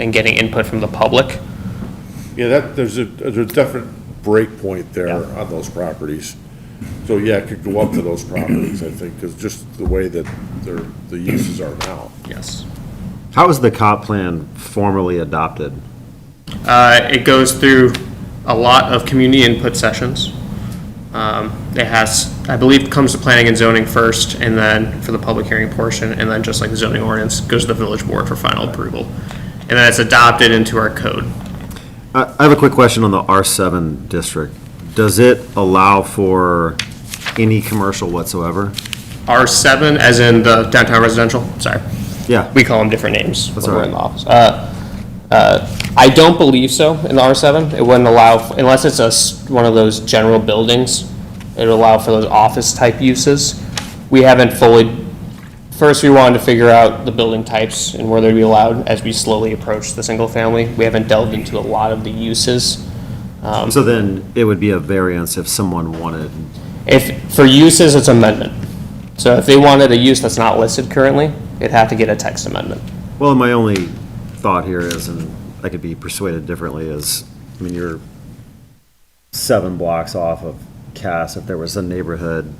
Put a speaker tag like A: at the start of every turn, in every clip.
A: and getting input from the public.
B: Yeah, that, there's a, there's a different break point there
A: Yeah.
B: on those properties. So yeah, it could go up to those properties, I think, because just the way that their, the uses are now.
A: Yes.
C: How was the comp plan formally adopted?
A: Uh, it goes through a lot of community input sessions. Um, it has, I believe, comes to planning and zoning first, and then for the public hearing portion, and then just like the zoning ordinance, goes to the village board for final approval. And then it's adopted into our code.
C: I I have a quick question on the R7 district. Does it allow for any commercial whatsoever?
A: R7, as in the downtown residential, sorry.
C: Yeah.
A: We call them different names when
C: all
A: we're
C: right.
A: in the office. Uh, uh, I don't believe so in the R7. It wouldn't allow, unless it's a, s- one of those general buildings, it would allow for those office-type uses. We haven't fully, first, we wanted to figure out the building types and where they'd be allowed as we slowly approach the single-family. We haven't delved into a lot of the uses.
C: So then it would be a variance if someone wanted,
A: If, for uses, it's amendment. So if they wanted a use that's not listed currently, it'd have to get a text amendment.
C: well, my only thought here is, and I could be persuaded differently, is, I mean, you're seven blocks off of Cass, if there was a neighborhood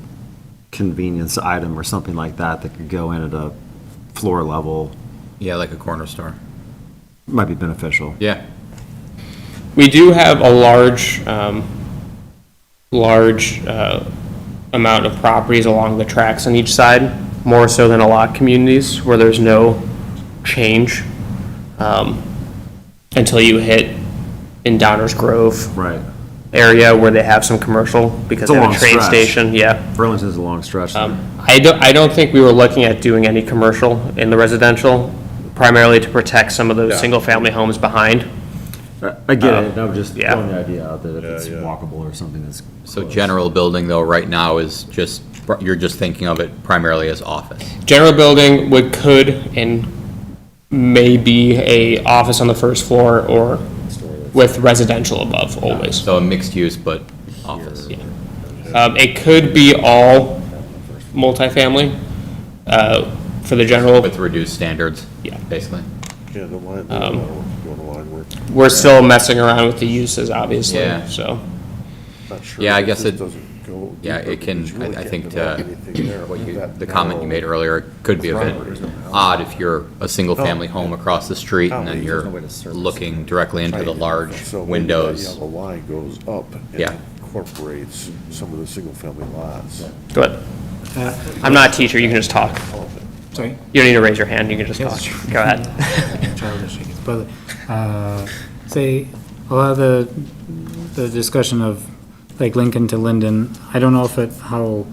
C: convenience item or something like that that could go in at a floor level,
D: Yeah, like a corner store.
C: might be beneficial.
D: Yeah.
A: We do have a large, um, large, uh, amount of properties along the tracks on each side, more so than a lot of communities where there's no change, um, until you hit in Downers Grove
C: Right.
A: area where they have some commercial because
C: It's a
A: they have
C: long
A: a train
C: stretch.
A: station, yeah.
C: Burlington's a long stretch.
D: Um,
A: I don't, I don't think we were looking at doing any commercial in the residential, primarily to protect some of
B: Yeah.
A: those single-family homes behind.
C: I I
D: uh,
C: get it, I'm just
A: yeah.
C: throwing the idea out that if it's
B: yeah.
C: walkable or something that's.
D: So
C: close.
D: general building though, right now is just, you're just thinking of it primarily as office.
A: general building would, could, and may be a office on the first floor or with residential above always.
D: So a mixed use, but office. Uh,
A: Um, it could be all multifamily, uh, for the general,
D: With reduced standards.
A: Yeah.
D: Basically.
B: Yeah, the line, the
D: um,
B: line work, going to line work.
A: we're still messing around with the uses, obviously,
D: Yeah.
A: so.
B: Not sure
D: Yeah, I
B: if
D: guess
B: this
D: it-
B: doesn't go
D: Yeah,
B: deeper,
D: it can,
B: because you really
D: I I
B: can't
D: think
B: develop
D: to,
B: anything there
D: what
B: with
D: you,
B: that
D: the comment you made
B: narrow-
D: earlier could be a
B: Properties
D: bit
B: don't have-
D: odd if you're a single family home across the street and then
B: There's
D: you're
C: no way to service
D: looking directly into the large
B: So maybe that
D: windows.
B: yellow line goes up.
D: Yeah.
B: and Incorporates some of the single-family lots.
A: Go ahead. I'm not a teacher, you can just talk.
E: Uh, Sorry,
A: You don't need to raise your hand, you can just
E: Yes.
A: talk. Go ahead.
E: childish, I guess, but, uh, say, a lot of the, the discussion of, like, Lincoln to Linden, I don't know if it, how,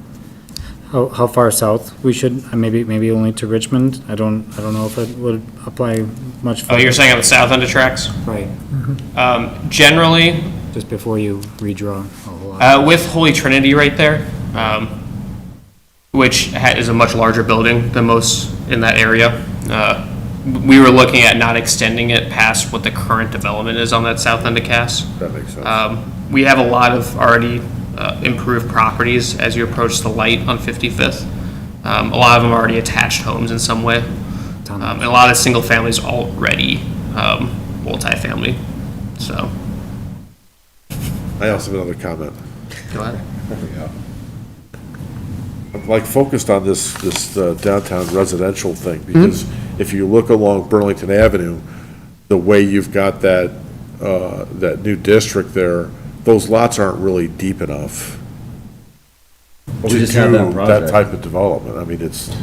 E: how, how far south we should, uh, maybe, maybe only to Richmond, I don't, I don't know if it would apply much.
A: Oh, you're
E: further.
A: saying on the south end of tracks?
E: Right,
A: Um, generally,
E: just before you redraw a whole lot.
A: Uh, with Holy Trinity right there, um, which ha- is a much larger building than most in that area. Uh, we were looking at not extending it past what the current development is on that south end of Cass.
B: That makes sense.
A: Um, we have a lot of already uh, improved properties as you approach the light on 55th. Um, a lot of them are already attached homes in some way. Um, and a lot of single families already um, multifamily. So,
B: I also have another comment.
A: go ahead.
B: I'm, like focused on this, this uh, downtown residential thing,
A: Mm-hmm.
B: because if you look along Burlington Avenue, the way you've got that, uh, that new district there, those lots aren't really deep enough.
C: We
B: to
C: just had that
B: do
C: project.
B: type of development, I mean, it's,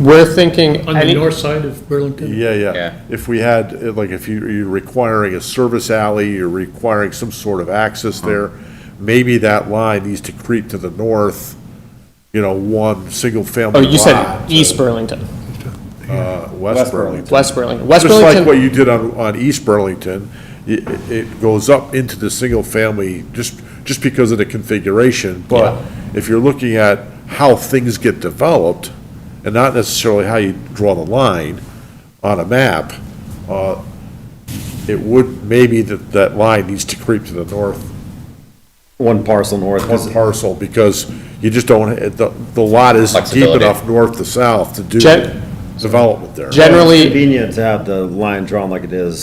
A: We're thinking.
F: On the north side of Burlington?
B: yeah,
D: Yeah.
B: yeah. If we had, uh, like, if you, you're requiring a service alley, you're requiring some sort of access
A: Uh-huh.
B: there, maybe that line needs to creep to the north, you know, one single-family
A: Oh,
B: lot.
A: you said East Burlington,
B: uh, West
C: West
B: Burlington.
A: West Burlington, West
B: Just like what
A: Burlington.
B: you did on, on East Burlington, it, it goes up into the single family just, just because of the configuration. But if you're looking at how things get developed, and not necessarily how you draw the line on a map, uh, it would, maybe that, that line needs to creep to the north,
C: One parcel north. 'cause-
B: one parcel, because you just don't, the, the lot is deep
D: Flexibility.
B: enough north to south to do
A: Gen-
B: development there.
A: Generally,
C: Convenient to have the line drawn like it is